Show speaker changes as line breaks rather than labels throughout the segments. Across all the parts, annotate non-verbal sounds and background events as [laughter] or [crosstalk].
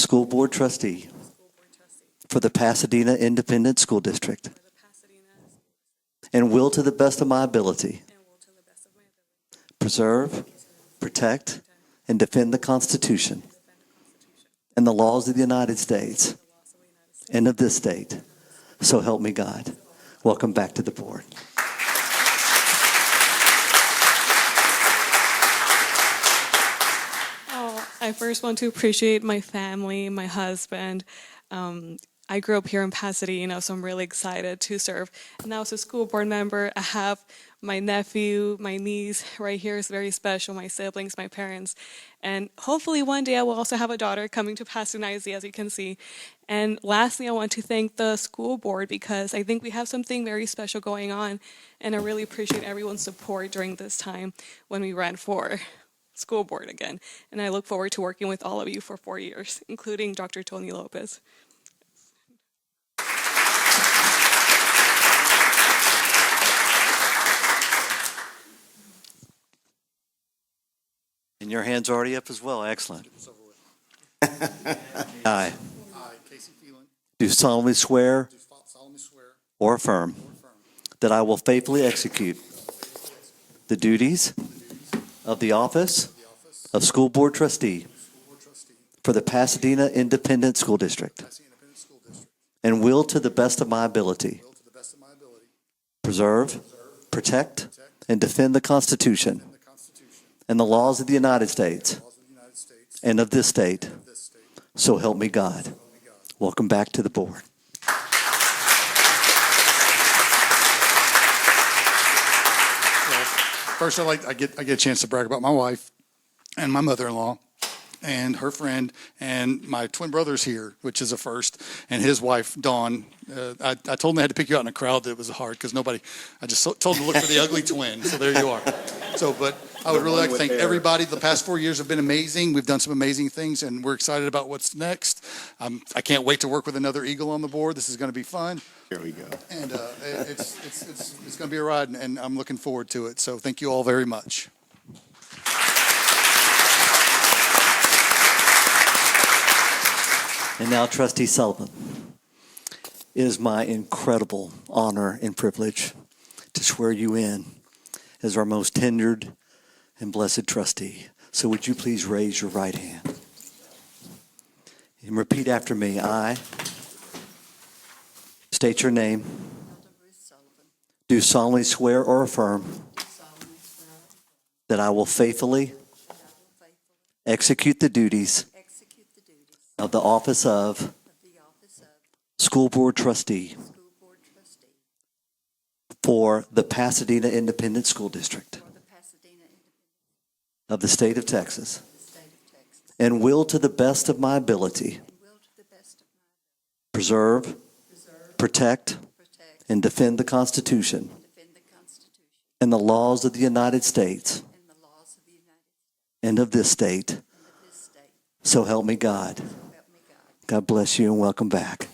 School Board Trustee
School Board Trustee
for the Pasadena Independent School District,
for the Pasadena
and will to the best of my ability
and will to the best of my ability
preserve, protect, and defend the Constitution and the laws of the United States and of this state. So help me God. Welcome back to the board.
Oh, I first want to appreciate my family, my husband. Um, I grew up here in Pasadena, so I'm really excited to serve. Now, as a school board member, I have my nephew, my niece right here is very special, my siblings, my parents. And hopefully, one day I will also have a daughter coming to Pasadena, ISD, as you can see. And lastly, I want to thank the school board because I think we have something very special going on. And I really appreciate everyone's support during this time when we ran for school board again, and I look forward to working with all of you for four years, including Dr. Tony Lopez.
And your hand's already up as well. Excellent. [laughs] I
I, Casey Phelan,
do solemnly swear
do solemnly swear
or affirm
or affirm
that I will faithfully execute the duties of the office
the office
of School Board Trustee
of School Board Trustee,
for the Pasadena Independent School District
Pasadena Independent School District,
and will to the best of my ability
will to the best of my ability
preserve, protect, and defend the Constitution
and the Constitution
and the laws of the United States
and laws of the United States
and of this state.
and this state.
So help me God. Welcome back to the board.
First, I like I get I get a chance to brag about my wife and my mother-in-law and her friend and my twin brother's here, which is a first, and his wife Dawn. Uh, I, I told them they had to pick you out in a crowd that was hard because nobody. I just so- told them to look for the ugly twin. So there you are. So, but I would really like to thank everybody. The past four years have been amazing. We've done some amazing things, and we're excited about what's next. Um, I can't wait to work with another eagle on the board. This is going to be fun.
Here we go.
And uh, it- it's, it's, it's, it's going to be a ride, and I'm looking forward to it. So thank you all very much.
And now, Trustee Sullivan, it is my incredible honor and privilege to swear you in as our most tenured and blessed trustee. So, would you please raise your right hand and repeat after me? I state your name,
Elder Ruth Sullivan,
do solemnly swear or affirm
do solemnly swear
that I will faithfully
that I will faithfully
execute the duties
execute the duties
of the office of
of the office of
School Board Trustee
School Board Trustee
for the Pasadena Independent School District.
for the Pasadena Independent
of the state of Texas
State of Texas,
and will to the best of my ability
and will to the best of my
preserve,
preserve,
protect,
protect,
and defend the Constitution
and defend the Constitution
and the laws of the United States
and the laws of the United
and of this state.
States and of this state.
So help me God.
So help me God.
God bless you and welcome back.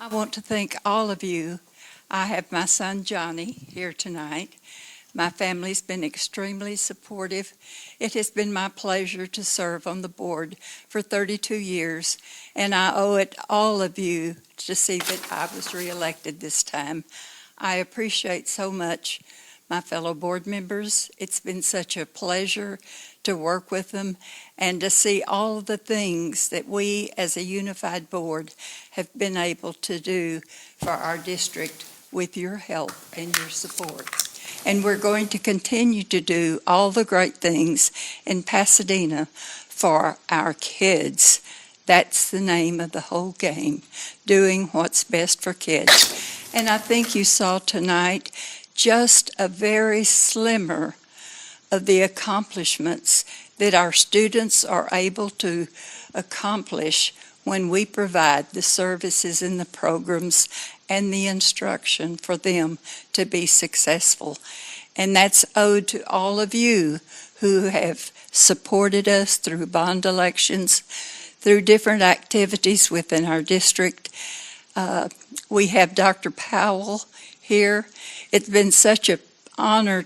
I want to thank all of you. I have my son Johnny here tonight. My family's been extremely supportive. It has been my pleasure to serve on the board for 32 years, and I owe it all of you to see that I was reelected this time. I appreciate so much my fellow board members. It's been such a pleasure to work with them and to see all the things that we as a unified board have been able to do for our district with your help and your support. And we're going to continue to do all the great things in Pasadena for our kids. That's the name of the whole game, doing what's best for kids. And I think you saw tonight just a very slimmer of the accomplishments that our students are able to accomplish when we provide the services and the programs and the instruction for them to be successful. And that's owed to all of you who have supported us through bond elections, through different activities within our district. Uh, we have Dr. Powell here. It's been such a, honor